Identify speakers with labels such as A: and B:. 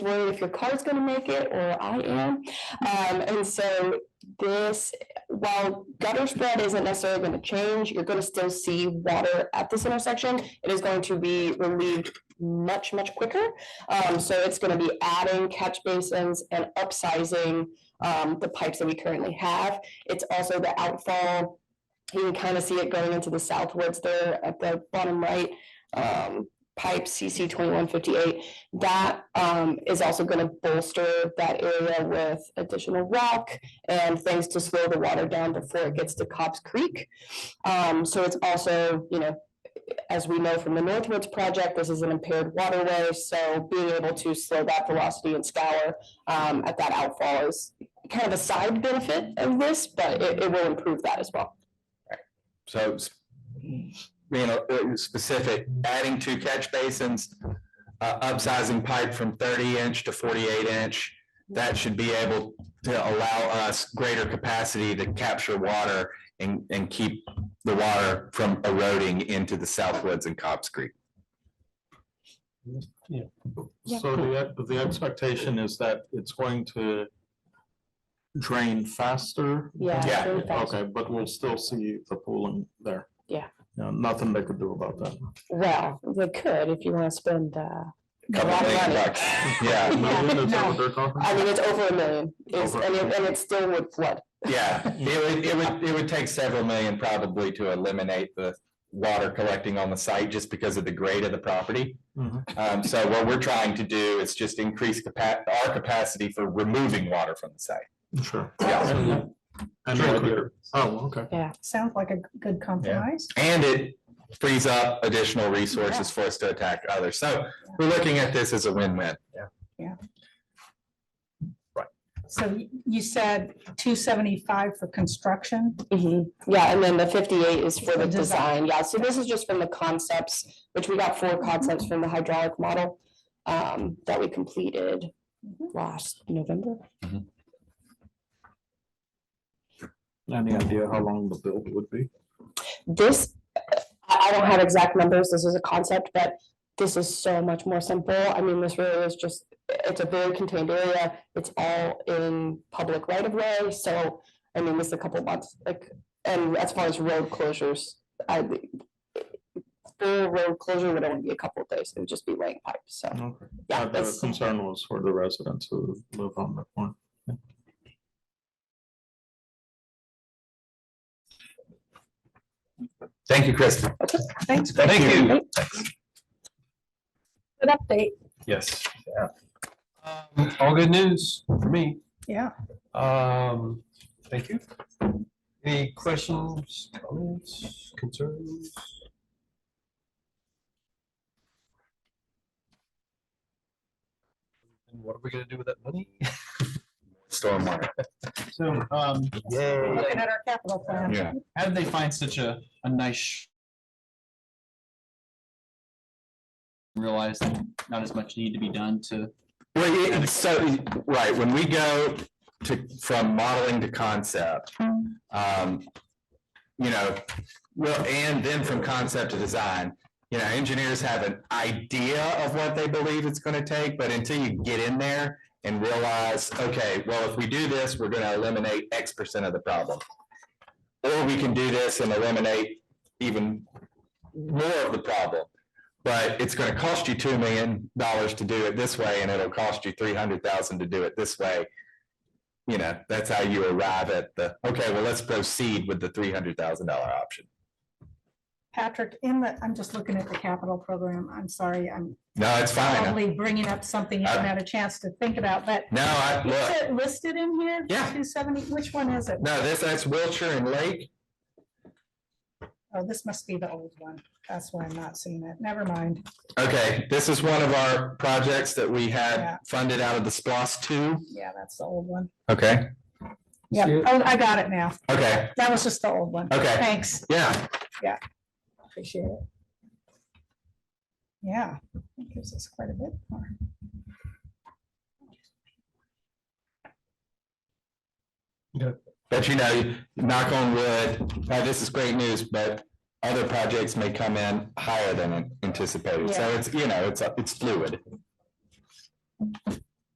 A: worried if your car's gonna make it, or I am. Um, and so this, while gutter spread isn't necessarily gonna change, you're gonna still see water at this intersection. It is going to be relieved much, much quicker. Um, so it's gonna be adding catch basins and upsizing, um, the pipes that we currently have. It's also the outfall. You can kind of see it going into the southwards there at the bottom right, um, pipe CC twenty-one fifty-eight. That, um, is also gonna bolster that area with additional rock and things to slow the water down before it gets to Cobb's Creek. Um, so it's also, you know, as we know from the Northwoods project, this is an impaired waterway, so being able to slow that velocity and scour um, at that outfall is kind of a side benefit of this, but it, it will improve that as well.
B: So, s- you know, uh, specific, adding two catch basins, uh, upsizing pipe from thirty inch to forty-eight inch. That should be able to allow us greater capacity to capture water and, and keep the water from eroding into the Southwoods and Cobb's Creek.
A: Yeah.
C: So the, the expectation is that it's going to drain faster?
A: Yeah,
B: Yeah.
A: very fast.
C: Okay, but we'll still see the pooling there.
A: Yeah.
C: No, Nothing they could do about that.
A: Well, they could if you want to spend, uh,
B: Couple
A: Lot of
B: million
A: money.
B: bucks. Yeah,
C: Million is that
A: no.
C: what they're talking?
A: I mean, it's over a million, it's,
C: Over.
A: and it, and it still would flood.
B: yeah. It would, it would, it would take several million probably to eliminate the water collecting on the site just because of the grade of the property.
C: Mhm.
B: Um, so what we're trying to do is just increase capa- our capacity for removing water from the site.
C: Sure.
B: Yeah.
C: And- and
B: Sure.
C: quicker. Oh, okay.
D: Sounds like a g- good compromise.
B: And it frees up additional resources for us to attack others. So we're looking at this as a win-win.
D: So y- you said two seventy-five for construction,
A: Mhm. Yeah, and then the fifty-eight is for the
D: The design.
A: design, yeah, so this is just from the concepts, which we got four concepts from the hydraulic model um, that we completed last November.
C: Any idea how long the build would be?
A: This, I, I don't have exact numbers, this is a concept, but this is so much more simple. I mean, this really is just, it's a very contained area. It's all in public right of way, so, I mean, this is a couple months, like, and as far as road closures, I full road closure would only be a couple of days, it would just be laying pipe, so,
C: Okay.
A: yeah,
C: Uh, The
A: that's,
C: concern was for the residents who live on that one.
B: Thank you, Kristen.
D: thanks,
B: Thank you.
D: good update,
E: Yes. Um, All good news for me.
D: yeah.
E: Um, thank you. Any questions, comments, concerns? And what are we gonna do with that money?
B: Stormwater.
F: So, um,
D: Looking at our capital plan.
B: Yeah.
F: how did they find such a, a nice? sh- Realize that not as much need to be done to,
B: Well, it- it's so, right, when we go to, from modeling to concept, um, you know, well, and then from concept to design, you know, engineers have an idea of what they believe it's gonna take, but until you get in there and realize, okay, well, if we do this, we're gonna eliminate X percent of the problem. Or we can do this and eliminate even more of the problem but it's gonna cost you two million dollars to do it this way, and it'll cost you three hundred thousand to do it this way. You know, that's how you arrive at the, okay, well, let's proceed with the three hundred thousand dollar option.
D: Patrick, in the, I'm just looking at the capital program, I'm sorry, I'm
B: No, it's fine.
D: probably bringing up something you haven't had a chance to think about, but
B: No, I,
D: is
B: look,
D: it listed in here?
B: Yeah.
D: Two seventy, which one is it?
B: no, this, that's Wiltshire and Lake.
D: Oh, this must be the old one, that's why I'm not seeing it, never mind,
B: Okay, this is one of our projects that we
D: Yeah.
B: had funded out of the SPOS two.
D: yeah, that's the old one.
B: Okay,
D: Yeah, oh, I got it now,
B: okay,
D: that was just the old one,
B: okay,
D: thanks,
B: yeah,
D: appreciate it. Yeah, that gives us quite a bit more.
B: but you know, knock on wood, now this is great news, but other projects may come in higher than anticipated, so
D: Yeah.
B: it's, you know, it's, it's fluid.